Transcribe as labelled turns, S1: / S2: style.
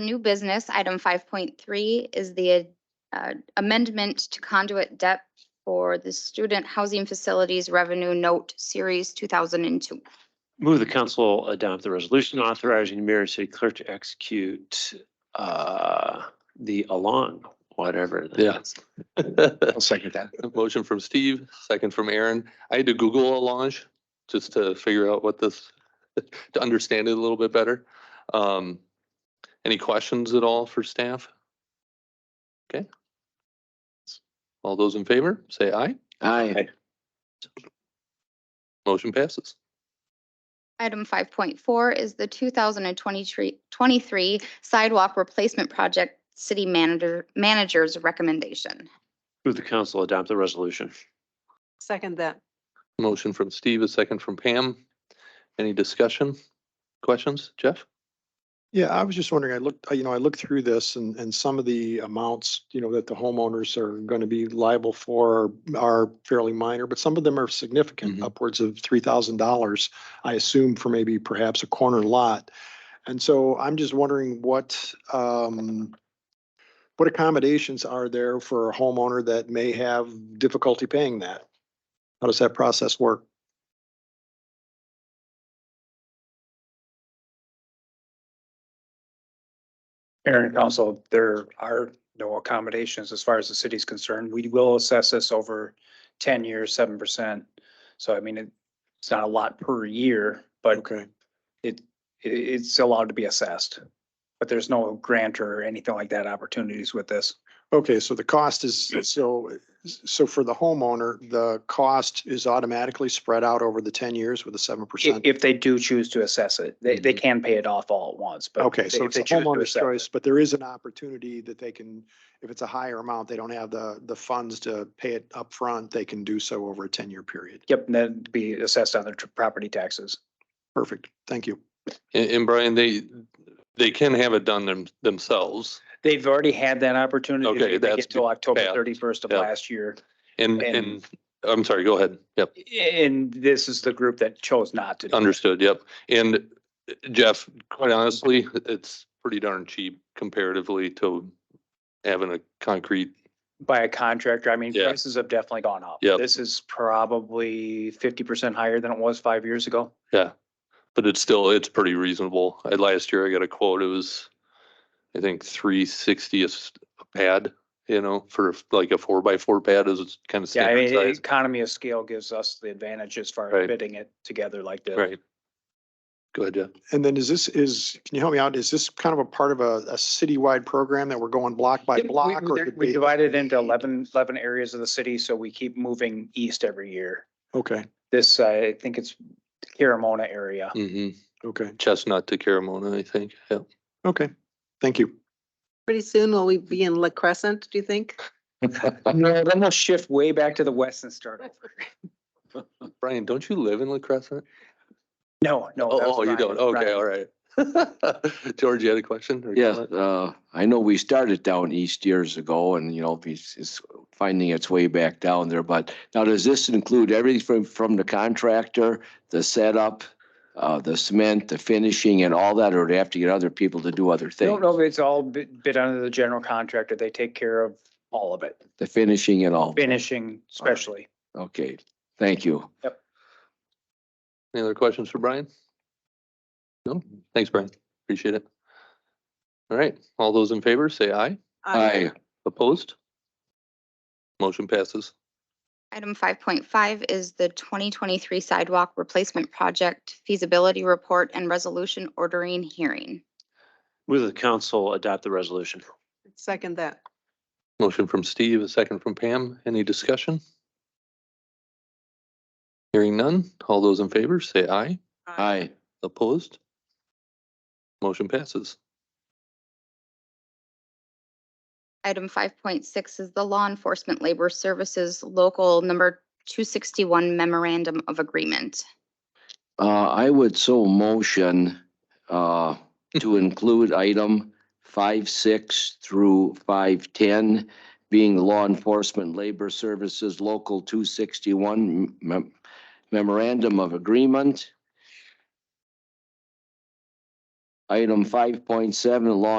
S1: New business, item five point three is the uh, amendment to conduit debt for the Student Housing Facilities Revenue Note Series two thousand and two.
S2: Move the council adopt the resolution authorizing the mayor and city clerk to execute uh, the along, whatever. that
S3: Yeah.
S2: is.
S3: A
S4: I'll second that.
S3: Motion from Steve, second from Aaron. I had to Google Allange just to figure out what this, to understand it a little bit better. Um, any questions at all for staff? Okay. All those in favor, say aye.
S4: Aye.
S3: Motion passes.
S1: Item five point four is the two thousand and twenty-three, twenty-three sidewalk replacement project, city manager, manager's recommendation.
S2: Move the council adopt the resolution.
S5: Second that.
S3: Motion from Steve, a second from Pam. Any discussion? Questions? Jeff?
S4: Yeah, I was just wondering, I looked, uh, you know, I looked through this and, and some of the amounts, you know, that the homeowners are going to be liable for are- are fairly minor, but some of them are significant,
S3: Mhm.
S4: upwards of three thousand dollars, I assume for maybe perhaps a corner lot. And so I'm just wondering what, um, what accommodations are there for a homeowner that may have difficulty paying that? How does that process work?
S6: Mayor and council, there are no accommodations as far as the city's concerned. We will assess this over ten years, seven percent. So I mean, it- it's not a lot per year, but it,
S4: Okay.
S6: it- it's allowed to be assessed. But there's no grant or anything like that opportunities with this.
S4: Okay, so the cost is, so, so for the homeowner, the cost is automatically spread out over the ten years with a seven
S6: If,
S4: percent?
S6: if they do choose to assess it, they, they can pay it off all at once, but.
S4: Mm-hmm. Okay,
S6: if
S4: so it's
S6: uh, they
S4: a
S6: choose to
S4: homeowner's
S6: assess it-
S4: choice, but there is an opportunity that they can, if it's a higher amount, they don't have the, the funds to pay it up front. they can do so over a ten-year period.
S6: Yep, and then be assessed on their tr- property taxes.
S4: Perfect, thank you.
S3: And, and Brian, they, they can have it done them, themselves.
S6: They've already had that opportunity.
S3: Okay,
S6: They get
S3: that's
S6: Till October
S3: bad.
S6: thirty-first of
S3: Yeah.
S6: last year.
S3: And,
S6: And-
S3: and, I'm sorry, go ahead. Yep.
S6: And this is the group that chose not to. do it.
S3: Understood, yep. And Jeff, quite honestly, it's pretty darn cheap comparatively to having a concrete,
S6: By a contractor, I mean,
S3: Yeah.
S6: prices have definitely gone up.
S3: Yep.
S6: This is probably fifty percent higher than it was five years ago.
S3: but it's still, it's pretty reasonable. I, last year I got a quote, it was, I think, three sixty a s- a pad, you know, for like a four by four pad is kind of
S6: Yeah, I
S3: standard
S6: mean,
S3: size.
S6: economy of scale gives us the advantage as far
S3: Right.
S6: as bidding it together like this.
S3: Right. Go ahead, Jeff.
S4: And then is this, is, can you help me out, is this kind of a part of a, a citywide program that we're going block by
S6: Yep, we-
S4: block?
S6: we-
S4: or
S6: there-
S4: could
S6: We
S4: be-
S6: divided into 11 11 areas of the city, so we keep moving east every year.
S4: Okay,
S6: This, uh, I think it's Carmona area.
S3: Mm-hmm.
S4: okay,
S3: Chestnut to Caramona, I think, yeah.
S4: okay, thank you.
S5: Pretty soon will we be in La Crescent, do you think?
S6: No, then we'll shift way back to the west and start. over.
S3: Brian, don't you live in La Crescent?
S6: No, no. that
S3: Oh,
S6: was
S3: oh, you
S6: Brian,
S3: don't? Okay,
S6: Brian.
S3: all right. George, you had a question? or
S7: Yeah,
S3: comment?
S7: uh, I know we started down east years ago and, you know, it's, it's finding its way back down there, but now does this include everything from, from the contractor, the setup, uh, the cement, the finishing and all that, or do they have to get other people to do other
S6: No,
S7: things?
S6: no, it's all bid, bid under the general contractor. They take care of all of it,
S7: The finishing and all?
S6: finishing especially.
S7: Okay, thank you.
S3: Any other questions for Brian? No, thanks, Brian. Appreciate it. All right, all those in favor, say aye.
S6: Uh,
S7: Aye.
S3: Opposed? Motion passes.
S1: Item five point five is the twenty twenty-three sidewalk replacement project feasibility report and resolution ordering hearing.
S2: Move the council adopt the resolution.
S5: Second that.
S3: Motion from Steve, a second from Pam. Any discussion? Hearing none. All those in favor, say aye.
S7: Aye.
S3: Opposed? Motion passes.
S1: Item five point six is the law enforcement labor services local number two sixty-one memorandum of agreement.
S7: Uh, I would so motion, uh, to include item five, six through five, ten, being the law enforcement labor services local two sixty-one mem- memorandum of agreement. Item five point seven, law